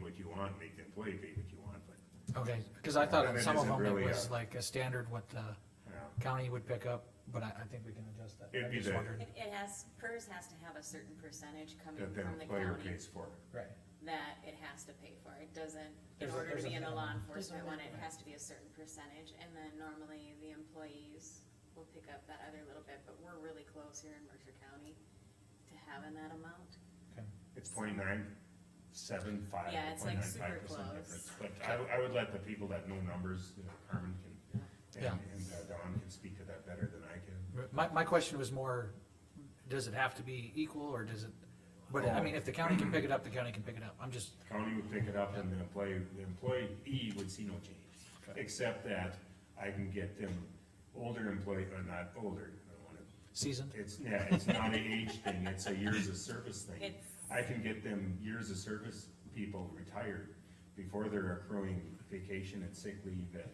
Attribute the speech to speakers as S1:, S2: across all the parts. S1: what you want, make the employee pay what you want, but,
S2: Okay, cause I thought
S1: And
S2: on
S1: it
S2: some of
S1: isn't
S2: them it
S1: really
S2: was
S1: a-
S2: like a standard what the
S1: you know,
S2: county would pick up, but I, I think we can adjust that.
S1: It'd
S2: I
S1: be
S2: just
S1: the-
S2: wondered.
S3: It, it has, PERS has to have a certain percentage coming
S1: that the
S3: from the
S1: employer
S3: county
S1: pays for it.
S2: Right,
S3: that it has to pay for. It doesn't, in
S2: There's a-
S3: order
S2: there's
S3: to
S2: a
S3: be in a law
S2: minimum.
S3: enforcement one, it
S2: minimum.
S3: has to be a certain percentage, and then normally the employees will pick up that other little bit, but we're really close here in Mercer County to having that amount.
S2: okay.
S1: It's point nine, seven, five, point
S3: Yeah, it's like
S1: nine five
S3: super
S1: percent
S3: close.
S1: difference. But I, I would let the people that know numbers, you know, Carmen can, and,
S2: Yeah.
S1: and uh, Don can speak to that better than I can.
S2: My, my question was more, does it have to be equal or does it, but
S1: Oh.
S2: I mean, if the county can pick it up, the county can pick it up. I'm just,
S1: County would pick it up and the employee, the employee would see no change. Except that I can get them older employee, or not older, I don't wanna
S2: seasoned.
S1: It's, yeah, it's not an age thing, it's a years of service thing.
S3: It's-
S1: I can get them years of service people retired before they're accruing vacation and sick leave at,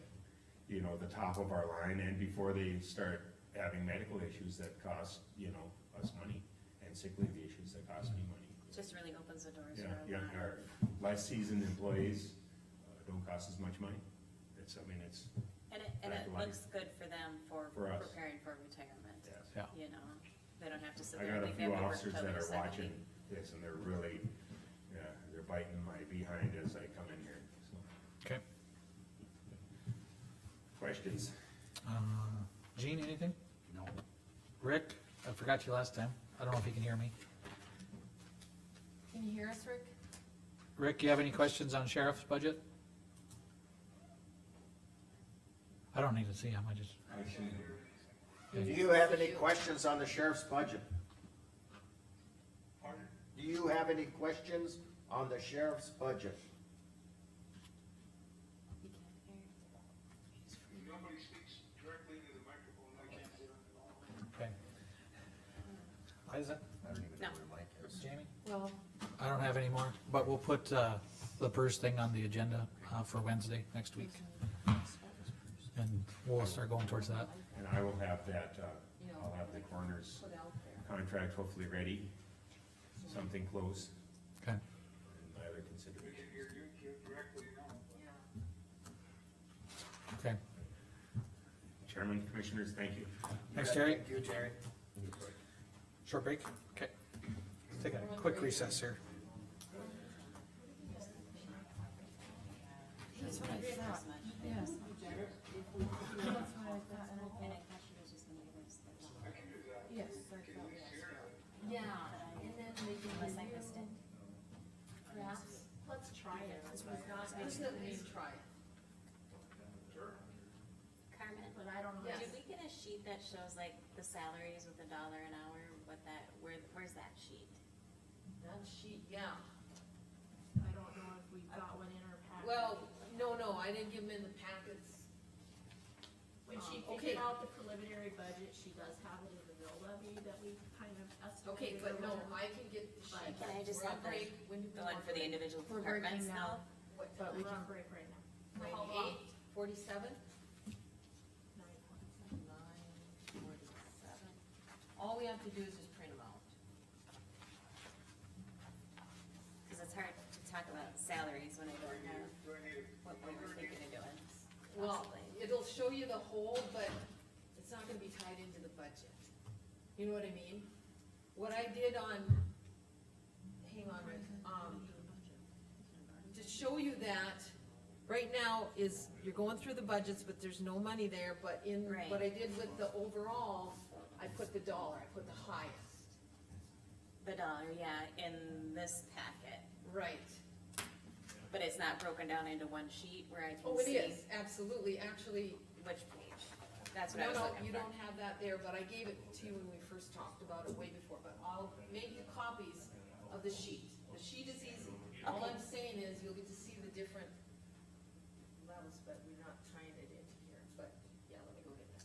S1: you know, the top of our line and before they start having medical issues that cost, you know, us money and sick leave issues that cost me money.
S3: Just really opens the doors
S1: Yeah,
S3: for a
S1: yeah,
S3: lot of.
S1: our less seasoned employees uh, don't cost as much money. It's, I mean, it's,
S3: And it, and
S1: Back
S3: it
S1: line.
S3: looks good for them for
S1: For us.
S3: preparing for retirement,
S1: yes.
S2: Yeah.
S3: you know? They don't have to sit
S1: I
S3: there
S1: got
S3: and
S1: a
S3: think they
S1: few
S3: have to work
S1: officers
S3: till
S1: that
S3: they're
S1: are watching
S3: seventy.
S1: this and they're really, yeah, they're biting my behind as I come in here, so.
S2: Okay.
S1: Questions?
S2: Um, Gene, anything?
S4: No.
S2: Rick, I forgot you last time. I don't know if you can hear me.
S5: Can you hear us, Rick?
S2: Rick, you have any questions on sheriff's budget? I don't need to see him, I just,
S4: Do you have any questions on the sheriff's budget? Do you have any questions on the sheriff's budget?
S3: You can't hear.
S6: Nobody speaks directly to the microphone, I can't hear it at all.
S2: okay. Why is that,
S4: I don't even
S3: know
S4: where Mike
S2: Jamie?
S5: Well,
S2: I don't have any more, but we'll put, uh, the PERS thing on the agenda, uh, for Wednesday next week. And we'll start going towards that.
S1: And I will have that, uh, I'll have the coroner's contract hopefully ready, something close,
S2: Okay.
S1: and my other
S6: You
S1: consideration.
S6: can hear you you directly now.
S2: Okay.
S1: Chairman, commissioners, thank you.
S2: Thanks, Terry.
S4: Thank you, Terry.
S2: Short break? Okay. Take a quick recess here.
S5: that's what I thought,
S3: As much.
S5: yes. That's what I thought, and I
S3: And I
S5: thought,
S3: thought she was just gonna give us the.
S6: I can do that.
S5: yes.
S6: Can you hear it?
S5: Yeah, and then they can
S3: Unless I
S5: review
S3: missed it.
S5: Perhaps, let's try it. This was not, this is at least try it.
S3: Carmen,
S5: But I don't know.
S3: did we get a sheet that shows like the salaries with a dollar an hour, what that, where, where's that sheet?
S5: That sheet, yeah.
S7: I don't know if we got one in our packet. Um,
S5: Well, no, no, I didn't give them in the packets.
S7: When she
S5: um, okay.
S7: figured out the preliminary budget, she does have it in the mill levy that we kind of
S5: Okay,
S7: estimated.
S5: but no,
S7: around.
S5: I can get the sheet.
S3: Can I just
S5: We're on
S3: have the-
S5: break. When do we
S3: The one
S5: want
S3: for the
S5: break?
S3: individual
S8: We're breaking
S3: departments now?
S8: now.
S5: What
S7: But we
S5: time?
S7: can break right now. For how long?
S5: Ninety-eight, forty-seven?
S7: Nine points.
S5: Nine forty-seven. All we have to do is just print them out.
S3: Cause it's hard to talk about salaries when I
S6: Do I
S3: don't
S6: need,
S3: know
S6: a- do I need a
S3: what we
S6: number
S3: were
S6: again?
S3: thinking of doing.
S5: Well,
S3: possibly.
S5: it'll show you the whole, but it's not gonna be tied into the budget. You know what I mean? What I did on, hang on, Rick, um, to show you that, right now is, you're going through the budgets, but there's no money there, but in,
S3: Right.
S5: what I did with the overall, I put the dollar, I put the highest.
S3: The dollar, uh, yeah, in this packet,
S5: Right.
S3: but it's not broken down into one sheet where I
S5: Oh,
S3: can
S5: it
S3: see
S5: is, absolutely, actually,
S3: which page. That's what I
S5: No,
S3: was
S5: no,
S3: looking
S5: you
S3: for.
S5: don't have that there, but I gave it to you when we first talked about it way before, but I'll make you copies of the sheet. The sheet is easy. All I'm saying is you'll get to see the different levels, but we're not tying it into here, but, yeah, let me go get that.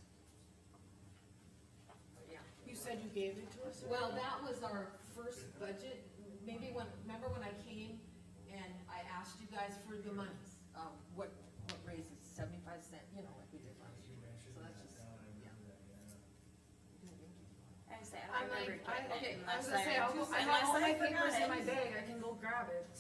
S5: But, Yeah,
S8: You said you gave it to us?
S5: well, that was our first budget, maybe when, remember when I came and I asked you guys for the monies? Um, what, what raises seventy-five cent, you know, like we did last year, so that's just, yeah.
S3: I said, I
S8: I'm
S3: don't remember
S8: like, I,
S3: getting it
S5: okay,
S3: unless
S5: I was gonna say, I'll go-
S3: unless
S8: I have all my
S3: forgot
S8: papers in
S3: it.
S8: my bag, I can go grab it.